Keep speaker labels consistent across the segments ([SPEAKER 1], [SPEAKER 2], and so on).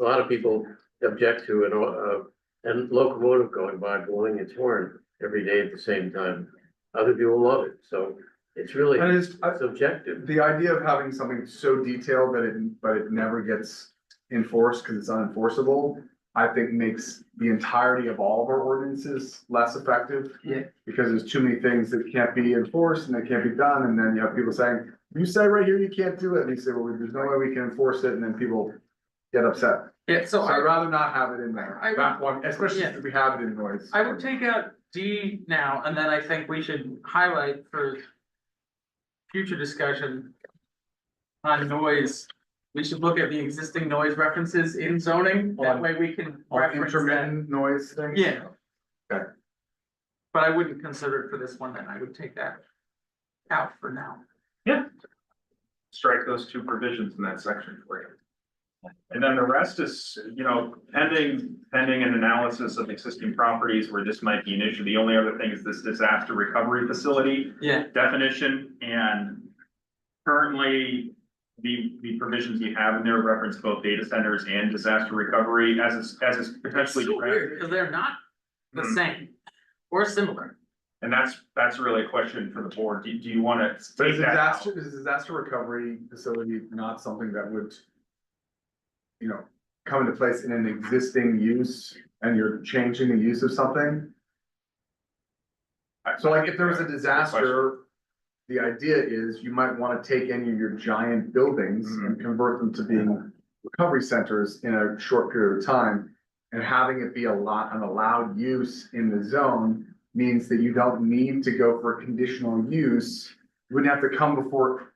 [SPEAKER 1] a lot of people object to an, uh, and locomotive going by blowing its horn every day at the same time. Other people love it, so it's really
[SPEAKER 2] And it's, I-
[SPEAKER 1] subjective.
[SPEAKER 2] the idea of having something so detailed that it, but it never gets enforced because it's unenforceable, I think makes the entirety of all of our ordinances less effective.
[SPEAKER 3] Yeah.
[SPEAKER 2] Because there's too many things that can't be enforced and they can't be done, and then you have people saying, you say right here you can't do it, and you say, well, there's no way we can enforce it, and then people get upset.
[SPEAKER 3] Yeah, so
[SPEAKER 2] So I'd
[SPEAKER 3] I,
[SPEAKER 2] rather not have it in there,
[SPEAKER 3] I-
[SPEAKER 2] that one, especially
[SPEAKER 3] Yeah.
[SPEAKER 2] if we have it in noise.
[SPEAKER 3] I would take out D now, and then I think we should highlight for future discussion on noise, we should look at the existing noise references in zoning, that
[SPEAKER 2] On-
[SPEAKER 3] way we can
[SPEAKER 2] Or
[SPEAKER 3] reference that.
[SPEAKER 2] intermittent noise thing.
[SPEAKER 3] Yeah.
[SPEAKER 2] Okay.
[SPEAKER 3] But I wouldn't consider it for this one, then I would take that out for now.
[SPEAKER 4] strike those two provisions in that section for you. And then the rest is, you know, pending, pending an analysis of existing properties where this might be an issue. The only other thing is this disaster recovery facility
[SPEAKER 3] Yeah,
[SPEAKER 4] definition and currently the, the provisions you have in there reference both data centers and disaster recovery as is, as is
[SPEAKER 3] it's
[SPEAKER 4] potentially.
[SPEAKER 3] so weird, cause they're not the
[SPEAKER 2] Mm.
[SPEAKER 4] Mhm.
[SPEAKER 3] same or similar.
[SPEAKER 4] And that's, that's really a question for the board. Do, do you want to
[SPEAKER 2] But
[SPEAKER 4] take
[SPEAKER 2] is
[SPEAKER 4] that out?
[SPEAKER 2] disaster, is disaster recovery facility not something that would. You know, come into place in an existing use and you're changing the use of something, so like if there was a disaster. The idea is you might wanna take any of your giant buildings and convert them to being recovery centers in a short period of time. And having it be a lot, an allowed use in the zone means that you don't need to go for a conditional use. You wouldn't have to come before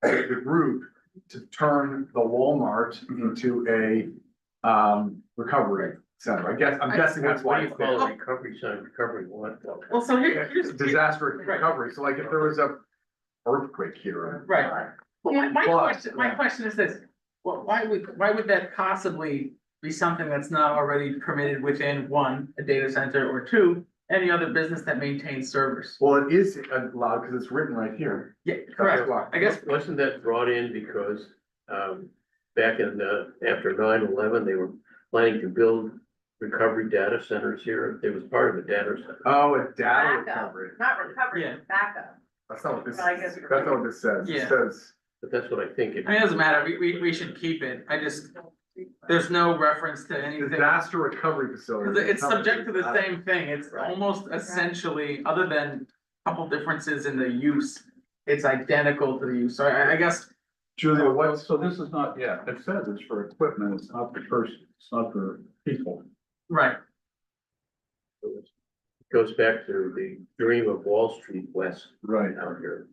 [SPEAKER 2] the the group to turn the Walmart
[SPEAKER 4] Mm-hmm.
[SPEAKER 2] into a um recovery center. I guess, I'm guessing that's why.
[SPEAKER 1] What do you
[SPEAKER 2] it's there.
[SPEAKER 1] call a recovery sign, recovery what?
[SPEAKER 3] Well, so here, here's.
[SPEAKER 2] Disaster
[SPEAKER 3] Right.
[SPEAKER 2] recovery, so like if there was a earthquake here.
[SPEAKER 3] Right. Well, my, my
[SPEAKER 2] But-
[SPEAKER 3] question, my question is this, well, why would, why would that possibly be something that's not already permitted within one, a data center, or two, any other business that maintains servers?
[SPEAKER 2] Well, it is allowed because it's written right here.
[SPEAKER 3] Yeah,
[SPEAKER 2] That's
[SPEAKER 3] correct,
[SPEAKER 2] why.
[SPEAKER 3] I guess,
[SPEAKER 1] Wasn't that brought in because, um, back in, uh, after 9/11, they were planning to build recovery data centers here. It was part of a data center.
[SPEAKER 2] Oh, a data
[SPEAKER 5] Backup.
[SPEAKER 2] recovery.
[SPEAKER 5] Not recovery,
[SPEAKER 3] Yeah.
[SPEAKER 5] backup.
[SPEAKER 2] That's not what this,
[SPEAKER 5] Well, I guess-
[SPEAKER 2] that's not what this says.
[SPEAKER 3] Yeah.
[SPEAKER 2] It says,
[SPEAKER 1] But that's what I think. it-
[SPEAKER 3] I mean, it doesn't matter, we, we, we should keep it, I just, there's no reference to anything.
[SPEAKER 2] disaster recovery
[SPEAKER 3] Cause
[SPEAKER 2] facility. Uh,
[SPEAKER 3] it's subject to the
[SPEAKER 2] Nothing.
[SPEAKER 3] same thing, it's
[SPEAKER 2] Right.
[SPEAKER 3] almost essentially, other than a couple differences in the use, it's identical to the use, so I, I guess
[SPEAKER 2] Julia, what's,
[SPEAKER 6] So this is not, yeah, it says it's for equipment, it's not for person, it's not for people.
[SPEAKER 3] Right,
[SPEAKER 1] It Goes back to the dream of Wall Street West
[SPEAKER 6] Right.
[SPEAKER 1] out here.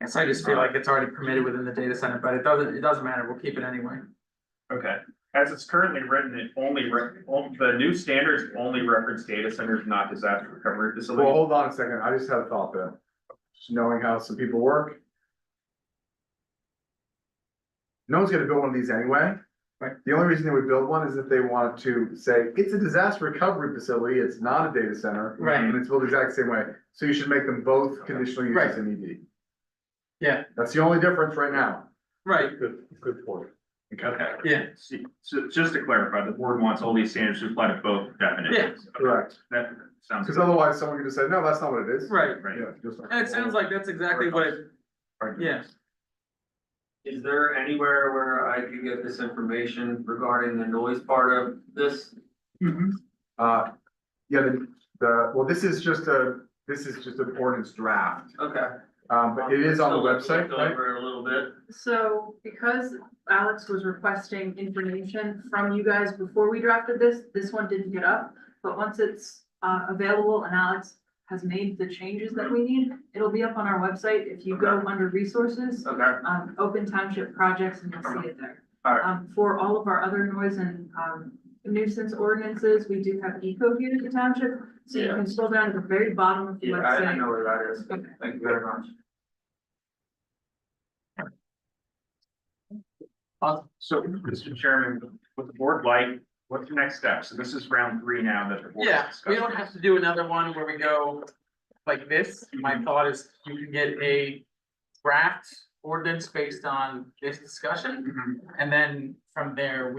[SPEAKER 3] and so I just feel like it's already permitted within the data center, but it doesn't, it doesn't matter, we'll keep it anyway.
[SPEAKER 4] Okay, as it's currently written, it only, re- on- the new standards only reference data centers, not disaster recovery
[SPEAKER 2] well,
[SPEAKER 4] facilities.
[SPEAKER 2] hold on a second. I just had a thought there. Just knowing how some people work. No one's gonna build one of these anyway.
[SPEAKER 3] Right.
[SPEAKER 2] The only reason they would build one is if they wanted to say, it's a disaster recovery facility, it's not a data center.
[SPEAKER 3] Right,
[SPEAKER 2] And it's built the exact same way, so you should make them both conditional
[SPEAKER 3] Right.
[SPEAKER 2] uses in ED.
[SPEAKER 3] Yeah.
[SPEAKER 2] That's the only difference right now.
[SPEAKER 3] right,
[SPEAKER 1] Good, good point.
[SPEAKER 4] Okay.
[SPEAKER 3] yeah,
[SPEAKER 4] See, So just to clarify, the board wants all these standards to apply to both definitions. Okay,
[SPEAKER 2] Correct,
[SPEAKER 4] That sounds
[SPEAKER 2] because
[SPEAKER 4] good,
[SPEAKER 2] otherwise someone could just say, no, that's not what it is.
[SPEAKER 3] right.
[SPEAKER 4] right?
[SPEAKER 2] Yeah, just like-
[SPEAKER 3] And it sounds like that's exactly what it, yeah.
[SPEAKER 7] Is there anywhere where I could get this information regarding the noise part of this?
[SPEAKER 2] Uh, yeah, the, the, well, this is just a, this is just an ordinance draft,
[SPEAKER 7] Okay.
[SPEAKER 2] um, but it is on the
[SPEAKER 7] Still looked
[SPEAKER 2] website, right?
[SPEAKER 7] Over a little bit.
[SPEAKER 5] So because Alex was requesting information from you guys before we drafted this, this one didn't get up. But once it's uh available and Alex has made the changes that we need, it'll be up on our website. If you go under resources,
[SPEAKER 7] Okay,
[SPEAKER 5] um, open township projects and you'll see it there.
[SPEAKER 7] Alright.
[SPEAKER 5] Um, for all of our other noise and um nuisance ordinances, we do have eco here at the township. So you
[SPEAKER 7] Yeah.
[SPEAKER 5] can scroll down to the very bottom of the
[SPEAKER 7] yeah, I didn't
[SPEAKER 5] website.
[SPEAKER 7] know where that is.
[SPEAKER 5] Okay.
[SPEAKER 7] Thank you very much.
[SPEAKER 4] So, Mr. Chairman, what the board like, what's the next step? So this is round three now that the board.
[SPEAKER 3] Yeah, we don't have to do another one where we go like this. My thought is you can get a
[SPEAKER 2] Mm-hmm.
[SPEAKER 3] draft ordinance based on this discussion. And then from there, we